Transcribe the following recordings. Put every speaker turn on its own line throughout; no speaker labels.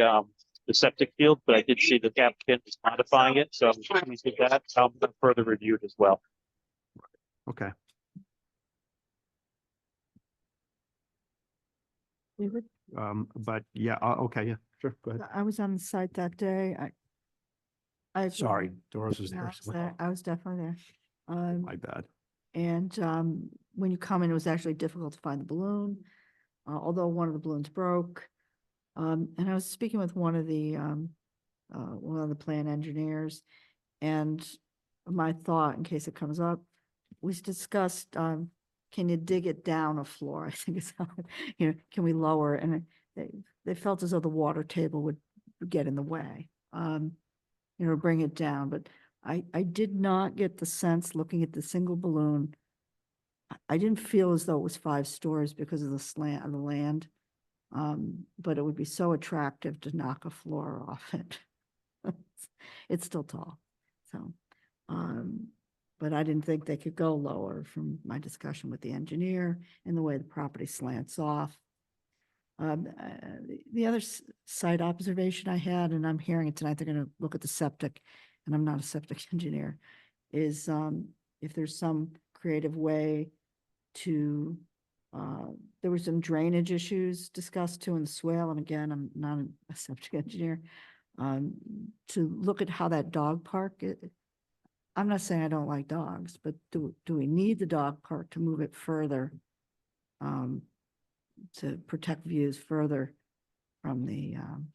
um, the septic field, but I did see the applicant is modifying it, so I'm pleased with that. Um, but further reviewed as well.
Okay,
We were,
um, but yeah, uh, okay, yeah, sure, go ahead.
I was on the site that day, I. I.
Sorry, Doris was
No, I
there.
was
so-
there, I was definitely there. Um,
My bad.
and, um, when you come in, it was actually difficult to find the balloon, uh, although one of the balloons broke. Um, and I was speaking with one of the, um, uh, one of the plan engineers. And my thought, in case it comes up, was discussed, um, can you dig it down a floor? I think it's, you know, can we lower? it? And I- they, they felt as though the water table would get in the way. Um, you know, bring it down, but I, I did not get the sense, looking at the single balloon, I- I didn't feel as though it was five stories because of the slant of the land. Um, but it would be so attractive to knock a floor off it. It's still tall, so, um, but I didn't think they could go lower from my discussion with the engineer and the way the property slants off. Um, uh, the- the other s- site observation I had, and I'm hearing it tonight, they're gonna look at the septic and I'm not a septic engineer, is um, if there's some creative way to, uh, there were some drainage issues discussed too in the swale, and again, I'm not a- a septic engineer, um, to look at how that dog park, it- I'm not saying I don't like dogs, but do, do we need the dog park to move it further? Um, to protect views further from the, um,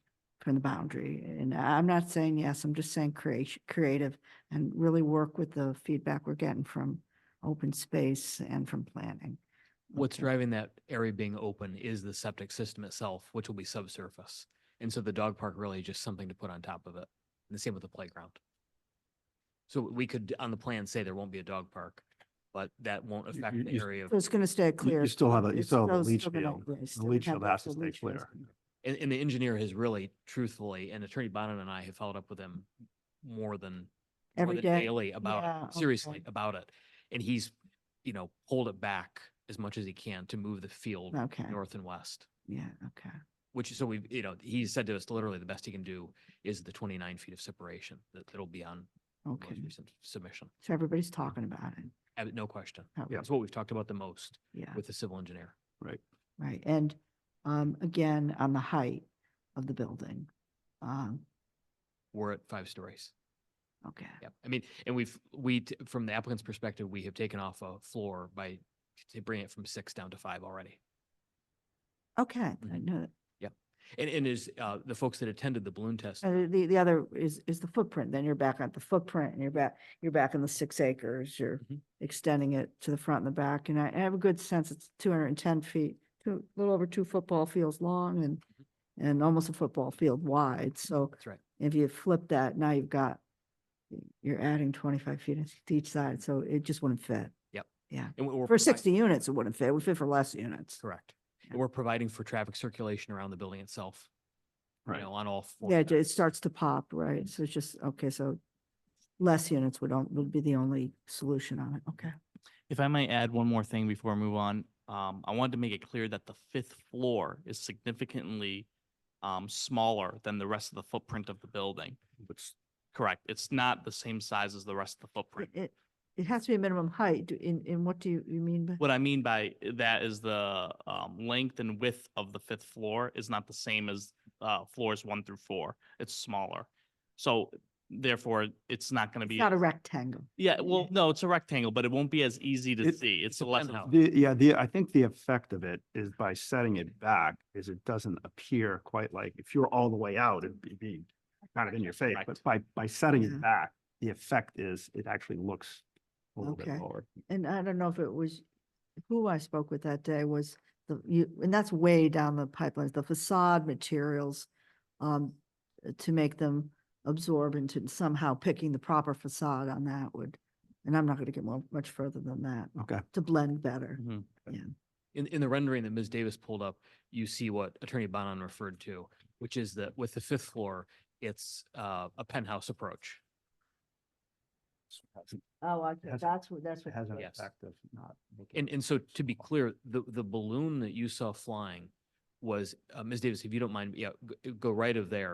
from the boundary. And I'm not saying yes, I'm just saying creation, creative and really work with the feedback we're getting from open space and from planning.
What's
Okay.
driving that area being open is the septic system itself, which will be subsurface. And so the dog park really is just something to put on top of it. And the same with the playground. So we could, on the plan, say there won't be a dog park, but that won't
You-
affect
you-
the
you-
area. of-
So it's going to stay clear.
You still have a, you
It's
still have a
those-
leach
still gonna-
field.
yeah, you
The
still
leach
have
field
those
has to
little
stay
leach fields.
clear.
And, and the engineer has really truthfully, and Attorney Bonin and I have followed up with him more than more
Every
than
day.
daily about
Yeah,
it, seriously
okay.
about it. And he's, you know, pulled it back as much as he can to move the field
Okay,
north and west.
yeah, okay.
Which, so we've, you know, he said to us literally the best he can do is the twenty-nine feet of separation that, that'll be on the most
Okay,
recent submission.
so everybody's talking about it.
Ab- No question.
Oh,
Yeah.
That's what we've talked about the most
Yeah,
with the civil engineer.
right. And um, again, on the height of the building. Um,
We're at five stories.
okay,
Yep. I mean, and we've, we, t- from the applicant's perspective, we have taken off a floor by t- bringing it from six down to five already.
okay, I
Mhm.
know that.
And, and is, uh, the folks that attended the balloon test,
Uh, the, the other is, is the footprint, then you're back on the footprint, and you're back, you're back in the six acres, you're
Mhm.
extending it to the front and the back, and I I have a good sense it's two hundred and ten feet, two, a little over two football fields long and,
Mm-hmm.
and almost a football field wide, so
that's right.
if you flip that, now you've got, you're adding twenty-five feet to each side, so it just wouldn't fit.
And we- we're
For
provi-
sixty units, it wouldn't fit, it would fit for less units.
Correct.
Yeah.
And we're providing for traffic circulation around the building itself. You
Right.
know, on all. four
Yeah, it it
sides.
starts to pop, right? So it's just, okay, so less units would, on- would be the only solution on it, okay?
If I might add one more thing before I move on, um, I wanted to make it clear that the fifth floor is significantly um, smaller than the rest of the footprint of the building.
Which,
Correct. It's not the same size as the rest of the footprint.
It- It, it has to be a minimum height, Do- in, in what do you, you mean by?
What I mean by that is the um, length and width of the fifth floor is not the same as uh, floors one through four. It's smaller. So therefore, it's not going to
It's
be.
not a rectangle.
Yeah, well, no, it's a rectangle, but it won't be as easy to
It-
see. It's a
depends
less.
how-
the, yeah, the, I think the effect of it is by setting it back is it doesn't appear quite like, if you're all the way out, it'd be- be kind of in your face, but
Correct.
by, by setting
Yeah.
it back, the effect is it actually looks a little bit
Okay.
lower.
And I don't know if it was, who I spoke with that day was the, you, and that's way down the pipeline, the facade materials. Um, to make them absorbent and somehow picking the proper facade on that would, and I'm not gonna get more, much further than that,
Okay,
to blend better.
Mhm.
In, in the rendering that Ms. Davis pulled up, you see what Attorney Bonan referred to, which is that with the fifth floor, it's uh, a penthouse approach.
Oh, I,
Has-
that's what, that's
it
what.
has an
Yes.
effect of not. making
And,
it
and so to be
small.
clear, the, the balloon that you saw flying was, uh, Ms. Davis, if you don't mind, yeah, g- go right of there.